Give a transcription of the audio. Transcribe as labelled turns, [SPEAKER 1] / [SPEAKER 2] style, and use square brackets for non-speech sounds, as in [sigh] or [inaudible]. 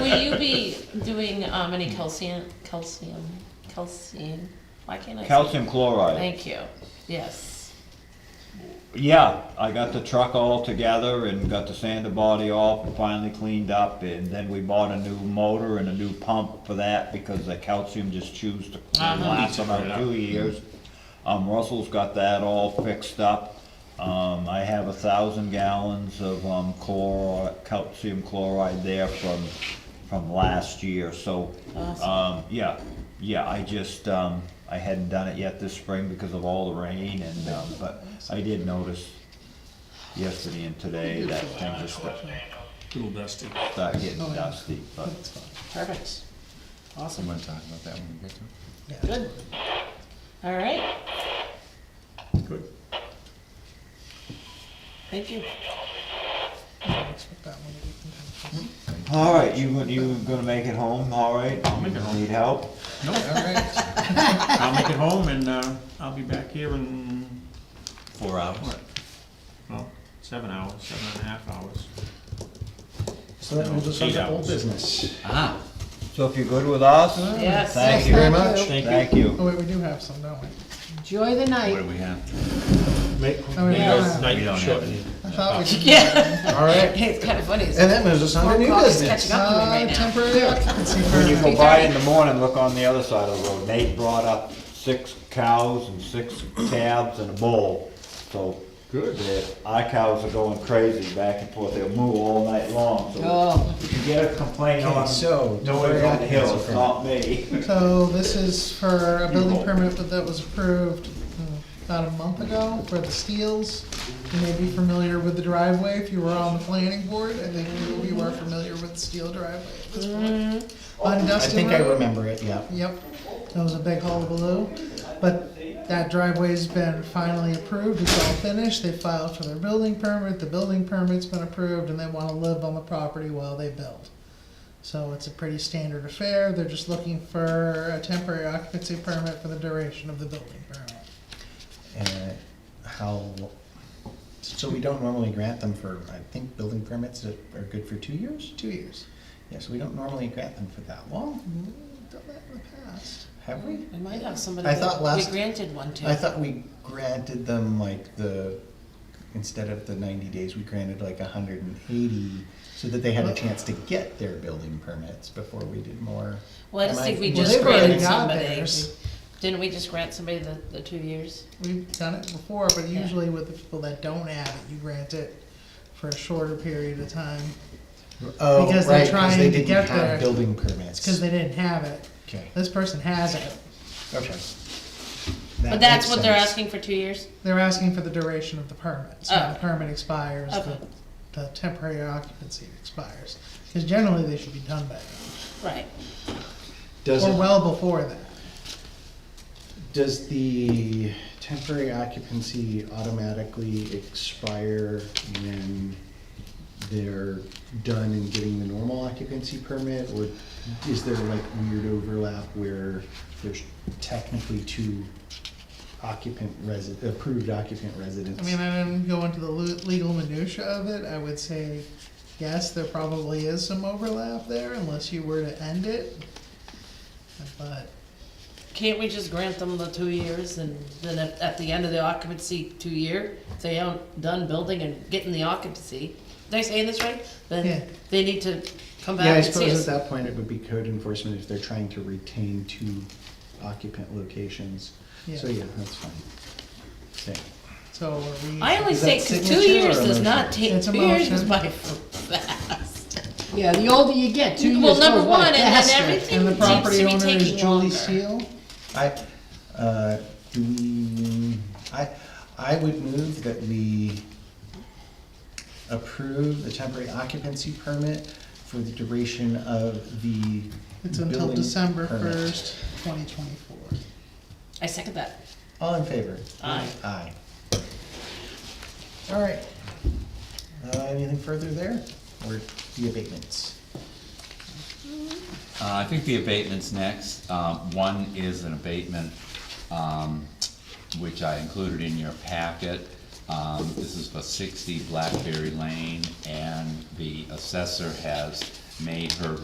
[SPEAKER 1] Will you be doing, um, any calcium, calcium, calcium? Why can't I? say-
[SPEAKER 2] Calcium chloride.
[SPEAKER 1] Thank you, yes.
[SPEAKER 2] Yeah, I got the truck all together and got the sander body off and finally cleaned up. And then we bought a new motor and a new pump for that because the calcium just chews to
[SPEAKER 1] Uh-huh.
[SPEAKER 2] last about two years. Um, Russell's got that all fixed up. Um, I have a thousand gallons of, um, chlor, calcium chloride there from, from last year, so.
[SPEAKER 1] Awesome.
[SPEAKER 2] Um, yeah, yeah, I just, um, I hadn't done it yet this spring because of all the rain and, um, but I did notice yesterday and today that thing just
[SPEAKER 3] Little dusty.
[SPEAKER 2] started getting dusty, but.
[SPEAKER 1] Perfect,
[SPEAKER 4] Awesome. I'm gonna talk about that when we get to it.
[SPEAKER 1] good. All right,
[SPEAKER 4] Good.
[SPEAKER 1] thank you.
[SPEAKER 2] All right, you, gonna- you gonna make it home, all right?
[SPEAKER 3] make it home.
[SPEAKER 2] Need help?
[SPEAKER 4] No, all right.
[SPEAKER 3] I'll make it home and, uh, I'll be back here in,
[SPEAKER 2] Four hours.
[SPEAKER 3] what? Well, seven hours, seven and a half hours.
[SPEAKER 5] So that moves us on
[SPEAKER 3] Eight
[SPEAKER 5] to old
[SPEAKER 3] hours.
[SPEAKER 5] business.
[SPEAKER 4] Ah,
[SPEAKER 2] So if you're good with us?
[SPEAKER 1] Yes.
[SPEAKER 2] Thank you.
[SPEAKER 5] very much.
[SPEAKER 2] Thank you.
[SPEAKER 5] Oh wait, we do have some, don't we?
[SPEAKER 6] Enjoy the
[SPEAKER 4] what do
[SPEAKER 6] night.
[SPEAKER 4] we have?
[SPEAKER 5] No, Oh, we don't have.
[SPEAKER 3] Night
[SPEAKER 4] don't
[SPEAKER 3] short.
[SPEAKER 4] have any.
[SPEAKER 5] I thought we did.
[SPEAKER 1] Yeah,
[SPEAKER 5] All right,
[SPEAKER 6] It's kind of funny.
[SPEAKER 5] and that moves us on to new
[SPEAKER 6] Well, it's
[SPEAKER 5] business.
[SPEAKER 6] catching up with me right
[SPEAKER 5] Uh,
[SPEAKER 6] now.
[SPEAKER 5] Temporary occupancy
[SPEAKER 2] When you
[SPEAKER 5] permit.
[SPEAKER 2] go by in the morning, look on the other side of the road. Nate brought up six cows and six calves and a bull, so. Good. Our cows are going crazy back and forth. They'll moo all night long, so
[SPEAKER 6] Oh,
[SPEAKER 2] if you get a complaint
[SPEAKER 5] Okay,
[SPEAKER 2] on,
[SPEAKER 5] so,
[SPEAKER 2] no way on the hill, it's
[SPEAKER 5] temporary
[SPEAKER 2] not me. [laughs]
[SPEAKER 5] So this is for a building permit that- that was approved uh, about a month ago for the Steels. You may be familiar with the driveway if you were on the planning board. I think you- you were familiar with Steel driveway at this point.
[SPEAKER 6] Mm-hmm.
[SPEAKER 5] On
[SPEAKER 7] I
[SPEAKER 5] Dustin
[SPEAKER 7] think I
[SPEAKER 5] Road.
[SPEAKER 7] remember it, yeah.
[SPEAKER 5] Yep, that was a big hullabaloo. But that driveway's been finally approved, it's all finished, they filed for their building permit, the building permit's been approved, and they wanna live on the property while they build. So it's a pretty standard affair, they're just looking for a temporary occupancy permit for the duration of the building permit.
[SPEAKER 7] And Uh, how, so we don't normally grant them for, I think, building permits that are good for two years?
[SPEAKER 5] Two years.
[SPEAKER 7] Yeah, so we don't normally grant them for that long,
[SPEAKER 5] Done that in the past.
[SPEAKER 7] have we?
[SPEAKER 1] we might have somebody.
[SPEAKER 7] I thought
[SPEAKER 1] that
[SPEAKER 7] last-
[SPEAKER 1] We granted one to.
[SPEAKER 7] I thought we granted them like the, instead of the ninety days, we granted like hundred and eighty so that they had a chance to get their building permits before we did more.
[SPEAKER 1] Well, I just
[SPEAKER 7] Am I-
[SPEAKER 1] think we
[SPEAKER 5] Well,
[SPEAKER 1] just
[SPEAKER 5] they've already
[SPEAKER 1] granted
[SPEAKER 5] got
[SPEAKER 1] somebody.
[SPEAKER 5] theirs.
[SPEAKER 1] Didn't we just grant somebody the, the two years?
[SPEAKER 5] We've done it before, but
[SPEAKER 1] Yeah.
[SPEAKER 5] usually with the people that don't have it, you grant it for a shorter period of time,
[SPEAKER 7] Oh,
[SPEAKER 5] Because they're
[SPEAKER 7] right,
[SPEAKER 5] trying
[SPEAKER 7] because they
[SPEAKER 5] to
[SPEAKER 7] didn't
[SPEAKER 5] get their-
[SPEAKER 7] have building permits.
[SPEAKER 5] it's cause they didn't have it.
[SPEAKER 7] Okay,
[SPEAKER 5] This person has it.
[SPEAKER 7] okay.
[SPEAKER 1] But that's what they're
[SPEAKER 7] asking.
[SPEAKER 1] asking for two years?
[SPEAKER 5] They're asking for the duration of the permit, so when the
[SPEAKER 1] Oh.
[SPEAKER 5] permit expires, the,
[SPEAKER 1] Okay.
[SPEAKER 5] the temporary occupancy expires. Because generally, they should be done by
[SPEAKER 1] Right.
[SPEAKER 7] Does
[SPEAKER 5] then,
[SPEAKER 7] it-
[SPEAKER 5] or well before that.
[SPEAKER 7] Does the temporary occupancy automatically expire when they're done and getting the normal occupancy permit? Or is there like weird overlap where there's technically two occupant resi, approved occupant residents?
[SPEAKER 5] I mean, I didn't go into the lu- legal minutia of it, I would say, yes, there probably is some overlap there, unless you were to end it. But,
[SPEAKER 1] Can't we just grant them the two years and then at, at the end of the occupancy two year, if they aren't done building and getting the occupancy, did I say this right?
[SPEAKER 5] Yeah.
[SPEAKER 1] Then they need to come
[SPEAKER 7] Yeah,
[SPEAKER 1] back and
[SPEAKER 7] I
[SPEAKER 1] see
[SPEAKER 7] suppose at
[SPEAKER 1] us.
[SPEAKER 7] that point it would be code enforcement if they're trying to retain two occupant locations. So,
[SPEAKER 5] Yeah.
[SPEAKER 7] yeah, that's fine. Okay.
[SPEAKER 5] so are we?
[SPEAKER 1] I only
[SPEAKER 7] Is
[SPEAKER 1] say,
[SPEAKER 7] that
[SPEAKER 1] cause two
[SPEAKER 7] signature
[SPEAKER 1] years
[SPEAKER 7] or
[SPEAKER 1] does
[SPEAKER 7] motion?
[SPEAKER 1] not take,
[SPEAKER 5] It's a
[SPEAKER 1] two years
[SPEAKER 5] motion.
[SPEAKER 1] is by fast.
[SPEAKER 6] yeah, the older you get, two years
[SPEAKER 1] Well,
[SPEAKER 6] goes by faster.
[SPEAKER 1] number one, and then everything
[SPEAKER 5] And the
[SPEAKER 1] seems
[SPEAKER 5] property
[SPEAKER 1] to be
[SPEAKER 5] owner is
[SPEAKER 1] taking
[SPEAKER 5] Julie
[SPEAKER 1] longer.
[SPEAKER 5] Steele?
[SPEAKER 7] I, uh, do we, I, I would move that we approve the temporary occupancy permit for the duration of the
[SPEAKER 5] It's until
[SPEAKER 7] building
[SPEAKER 5] December
[SPEAKER 7] permit.
[SPEAKER 5] first, twenty twenty-four.
[SPEAKER 1] I second that.
[SPEAKER 7] All in favor?
[SPEAKER 1] Aye.
[SPEAKER 7] Aye. All right. Uh, anything further there, or the abatements?
[SPEAKER 4] Uh, I think the abatement's next. Um, one is an abatement, um, which I included in your packet. Um, this is for sixty Blackberry Lane, and the assessor has made her